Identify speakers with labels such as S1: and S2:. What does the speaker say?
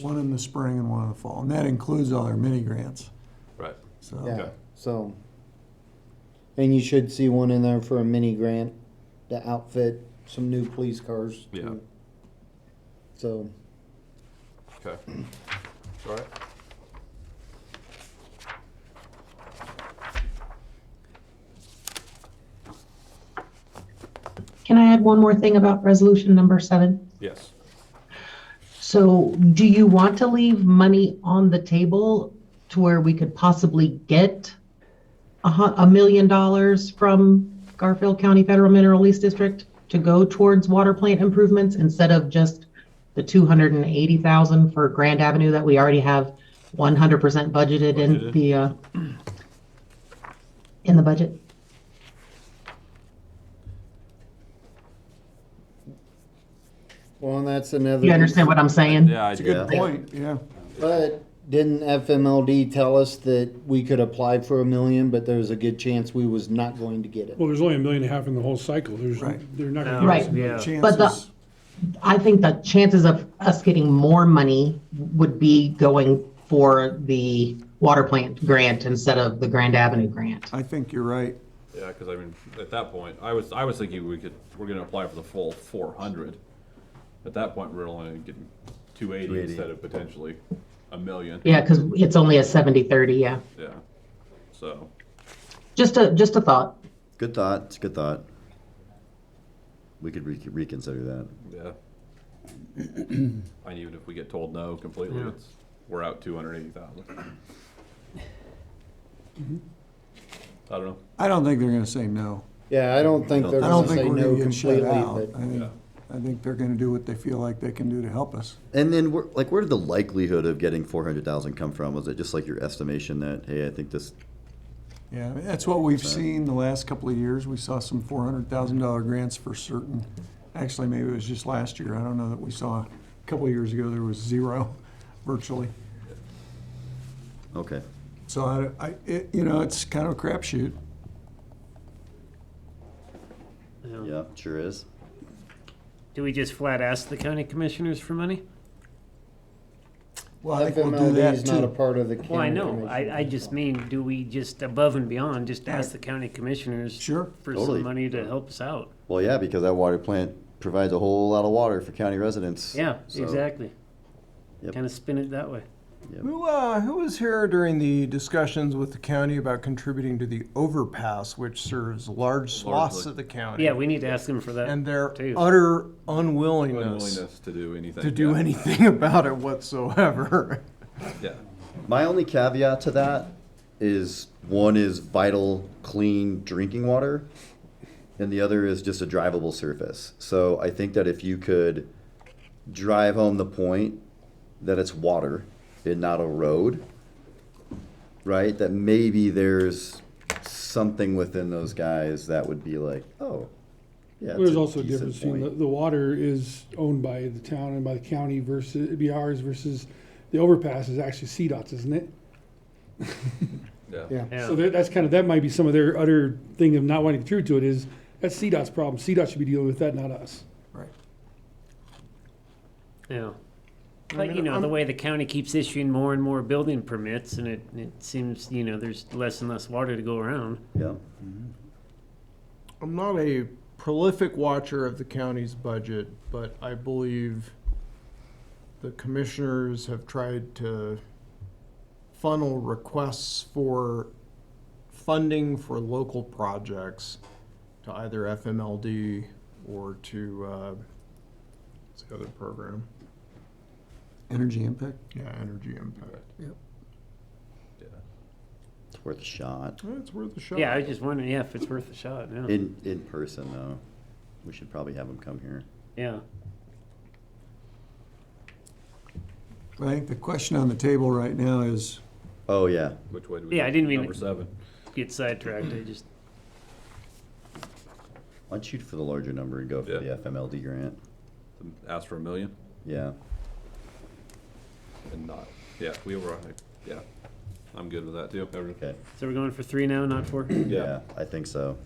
S1: One in the spring and one in the fall, and that includes all our mini grants,
S2: Right.
S1: so.
S2: Okay.
S3: Yeah, so. And you should see one in there for a mini grant to outfit some new police cars.
S2: Yeah.
S3: too. So,
S2: Okay. All right.
S4: Can I add one more thing about resolution number seven?
S2: Yes.
S4: So do you want to leave money on the table to where we could possibly get a hu- a million dollars from Garfield County Federal Mineral Lease District to go towards water plant improvements instead of just the two hundred and eighty thousand for Grand Avenue that we already have one hundred percent budgeted in
S2: Budgeted.
S4: the, uh, in the budget?
S3: well, and that's another.
S4: You understand what I'm saying?
S2: Yeah, I
S1: It's a
S2: do.
S1: good point, yeah.
S3: But didn't FMLD tell us that we could apply for a million, but there's a good chance we was not going to get it?
S5: Well, there's only a million and a half in the whole cycle. There's,
S1: Right.
S5: they're not
S6: No,
S5: gonna give us.
S4: Right.
S6: Yeah.
S4: But the-
S1: Chances,
S4: I think the chances of us getting more money would be going for the water plant grant instead of the Grand Avenue grant.
S1: I think you're right,
S2: Yeah, because I mean, at that point, I was, I was thinking we could, we're gonna apply for the full four hundred. At that point, we're only getting two eighty instead of potentially a million.
S4: Yeah, because it's only a 70-30, yeah.
S2: Yeah. So,
S4: Just a, just a thought.
S7: Good thought. It's a good thought. We could re- reconsider that.
S2: yeah. And even if we get told no completely, it's, we're out two hundred eighty thousand. Mm-hmm. I don't know.
S1: I don't think they're gonna say no.
S3: Yeah, I don't think they're
S1: I don't
S3: gonna say
S1: think we're
S3: no
S1: gonna get shut
S3: completely,
S1: out, I
S3: but
S1: think, I think they're gonna do what they feel like they can do to help us.
S7: And then, where, like, where did the likelihood of getting four hundred thousand come from? Was it just like your estimation that, hey, I think this?
S1: Yeah, I mean, that's what we've seen the last couple of years. We saw some four hundred thousand dollar grants for certain. Actually, maybe it was just last year. I don't know that we saw, a couple of years ago, there was zero virtually.
S7: Okay,
S1: So I, I, it, you know, it's kind of a crapshoot.
S7: yeah, sure is.
S6: Do we just flat ask the county commissioners for money?
S1: Well, I think we'll do
S3: FMLD
S1: that
S3: is not a
S1: too.
S3: part of the county
S6: Well, I know,
S3: commission.
S6: I, I just mean, do we just above and beyond, just ask the county commissioners?
S1: Sure.
S6: For
S7: Totally.
S6: some money to help us out?
S7: Well, yeah, because that water plant provides a whole lot of water for county residents.
S6: Yeah,
S7: So-
S6: exactly.
S7: Yep.
S6: Kind of spin it that way.
S8: Who, uh, who was here during the discussions with the county about contributing to the overpass, which serves large swaths
S2: Largely.
S8: of the county?
S6: Yeah, we need to ask them for that.
S8: and their
S6: too.
S8: utter unwillingness,
S2: Unwillingness to do anything.
S8: to do
S2: yeah.
S8: anything about it whatsoever.
S2: Yeah.
S7: My only caveat to that is one is vital, clean drinking water, and the other is just a drivable surface. So I think that if you could drive home the point that it's water and not a road, right, that maybe there's something within those guys that would be like, oh, yeah. it's
S5: There's
S7: a
S5: also a
S7: decent
S5: difference between,
S7: point.
S5: the, the water is owned by the town and by the county versus, it'd be ours versus, the overpass is actually CDOT's, isn't it?
S2: Yeah.
S3: Yeah.
S6: Yeah.
S5: So that, that's kind of, that might be some of their other thing of not wanting to contribute to it is, that's CDOT's problem. CDOT should be dealing with that, not us.
S1: Right.
S6: Yeah. But, you know, the way the county keeps issuing more and more building permits and it, it seems, you know, there's less and less water to go around.
S7: Yeah.
S8: I'm not a prolific watcher of the county's budget, but I believe the commissioners have tried to funnel requests for funding for local projects to either FMLD or to, uh, what's the other program?
S1: Energy impact.
S8: Yeah, Energy Impact.
S7: It's worth a shot.
S8: Well, It's worth a shot.
S6: Yeah, I was just wondering, yeah, if it's worth a shot, yeah,
S7: In, in person, though, we should probably have them come here.
S6: yeah.
S1: I think the question on the table right now is,
S7: Oh, yeah.
S2: Which way do we?
S6: Yeah,
S2: go?
S6: I didn't mean-
S2: Number seven.
S6: Get sidetracked, I just,
S7: I'd shoot for the larger number and go for
S2: Yeah.
S7: the FMLD grant.
S2: Ask for a million.
S7: Yeah.
S2: And not, yeah, we were, yeah, I'm good with that too.
S7: Okay.
S6: so we're going for three now, not four?
S7: Yeah. I think so.